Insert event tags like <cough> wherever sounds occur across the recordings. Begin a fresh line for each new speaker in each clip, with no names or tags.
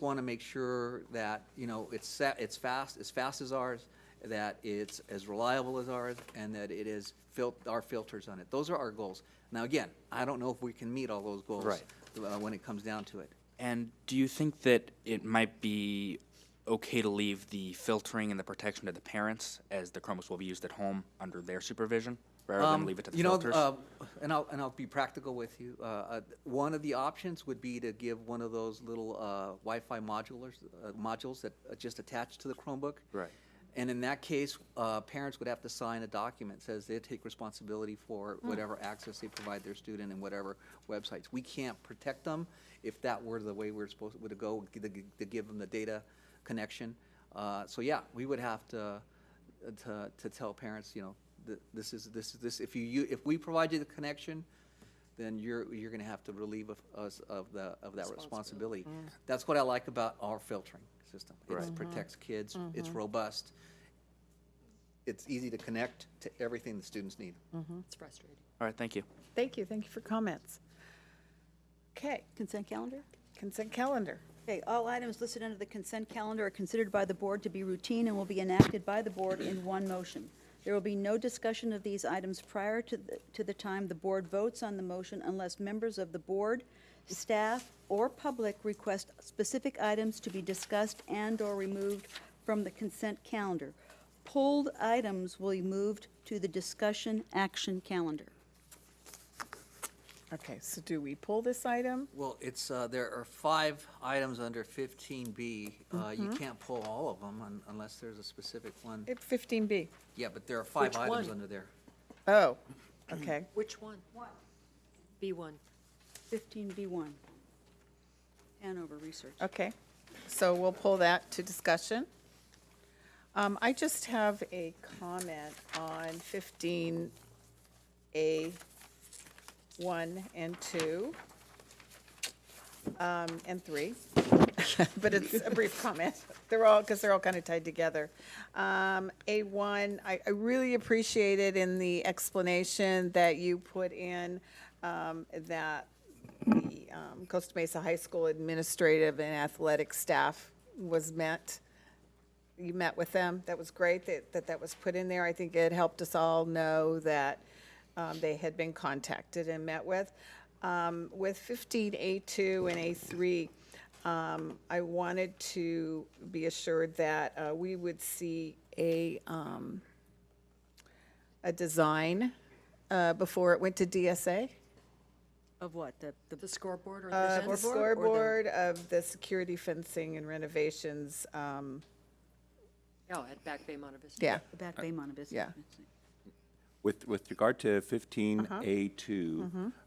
want to make sure that, you know, it's set, it's fast, as fast as ours, that it's as reliable as ours, and that it is fil, our filters on it. Those are our goals. Now, again, I don't know if we can meet all those goals.
Right.
uh, When it comes down to it.
And do you think that it might be okay to leave the filtering and the protection to the parents as the Chromebooks will be used at home under their supervision rather
Um,
than leave it to the
you know,
filters?
uh, and I'll and I'll be practical with you. Uh, uh, one of the options would be to give one of those little uh, Wi-Fi modulars uh, modules that are just attach to the Chromebook.
Right.
And in that case, uh, parents would have to sign a document that says they take responsibility for whatever access they provide their student and whatever websites. We can't protect them if that were the way we're supposed to go to, to give them the data connection. Uh, so yeah, we would have to uh, to, to tell parents, you know, th- this is, this is, this, if you, you, if we provide you the connection, then you're, you're gonna have to relieve of- us of the, of that responsibility. That's what I like about our filtering system. It
Right.
protects kids, it's robust, it's easy to connect to everything the students need.
It's frustrating.
All right, thank you.
Thank you, thank you for comments. Okay,
Consent calendar?
consent calendar.
Okay, all items listed under the consent calendar are considered by the board to be routine and will be enacted by the board in one motion. There will be no discussion of these items prior to the, to the time the board votes on the motion unless members of the board, staff, or public request specific items to be discussed and/or removed from the consent calendar. Pulled items will be moved to the discussion action calendar.
Okay, so do we pull this item?
Well, it's, uh, there are five items under fifteen B. Uh, you can't pull all of them un- unless there's a specific one.
It 15B.
Yeah, but there are five
Which
items
one?
under there.
Oh, okay.
Which one? B1.
15B1, Hanover Research.
Okay, so we'll pull that to discussion. Um, I just have a comment on fifteen A one and two, um, and three. <laughs> But it's a brief comment. They're all, because they're all kind of tied together. Um, A one, I, I really appreciated in the explanation that you put in, um, that the um, Costa Mesa High School administrative and athletic staff was met. You met with them. That was great that that, that was put in there. I think it helped us all know that um, they had been contacted and met with. Um, With 15A2 and A3, um, I wanted to be assured that uh, we would see a, um, a design uh, before it went to DSA.
Of what? The, the
The scoreboard or
Uh,
the
the
fence?
scoreboard of the security fencing and renovations, um,
Oh, at Back Bay Monte Vista.
yeah.
The Back Bay Montebello.
Uh, Yeah.
With, with regard to fifteen A two,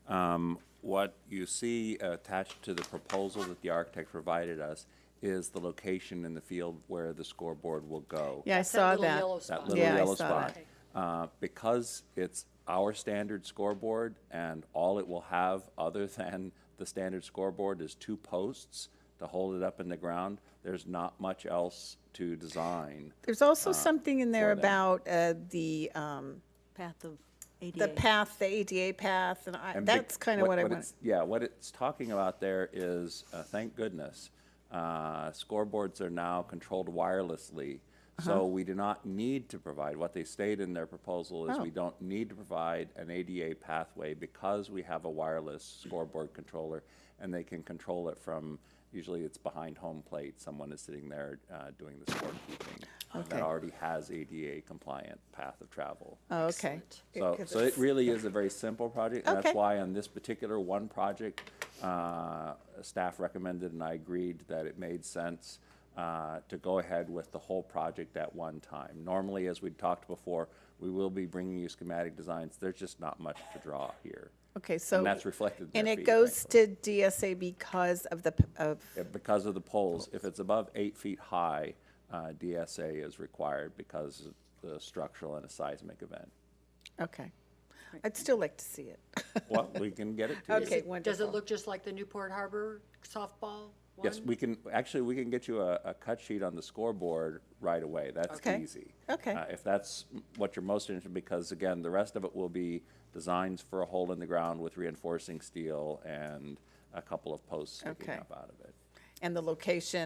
Uh-huh.
um,
Mm-hmm.
what you see attached to the proposal that the architect provided us is the location in the field where the scoreboard will go.
Yeah, I
It's
saw
little
that.
yellow
That
spot.
little
Yeah, I
yellow
saw
spot.
that.
Uh, because it's our standard scoreboard and all it will have other <laughs> than the standard scoreboard is two posts to hold it up in the ground, there's not much else to design.
There's also
Uh,
something in there
that.
about, uh, the, um,
Path of ADA.
the path, the ADA path, and I,
And bec-
that's kind of what I want.
it's- Yeah, what it's talking about there is, uh, thank goodness, uh, scoreboards are now controlled wirelessly.
Uh-huh.
So we do not need to provide, what they state in their proposal
Oh.
is we don't need to provide an ADA pathway because we have a wireless scoreboard controller and they can control it from, usually it's behind home plate, someone is sitting there uh, doing the scorekeeping. and That
Okay.
already has ADA compliant path of travel.
Oh, okay.
So,
Because
so
it's-
it really is a very simple project, and
Okay.
that's why on this particular one project, uh, staff recommended and I agreed that it made sense uh, to go ahead with the whole project at one time. Normally, as we talked before, we will be bringing you schematic designs, there's just not much to draw here.
Okay, so.
that's reflected in
And
their
it
fee,
goes to DSA because of the, p- of,
Yeah, Uh, Because of the poles, if it's above eight feet high, uh, DSA is required because of the structural and a seismic event.
okay. I'd still like to see it.
Well, we can get it to you.
Okay,
Does
wonderful.
it look just like the Newport Harbor softball one?
Yes, we can, actually, we can get you a, a cut sheet on the scoreboard right away. That's
Okay.
easy.
Okay.
Uh, If that's what you're most interested, because again, the rest of it will be designs for a hole in the ground with reinforcing steel and a couple of posts sticking
Okay.
up out of it.
And the location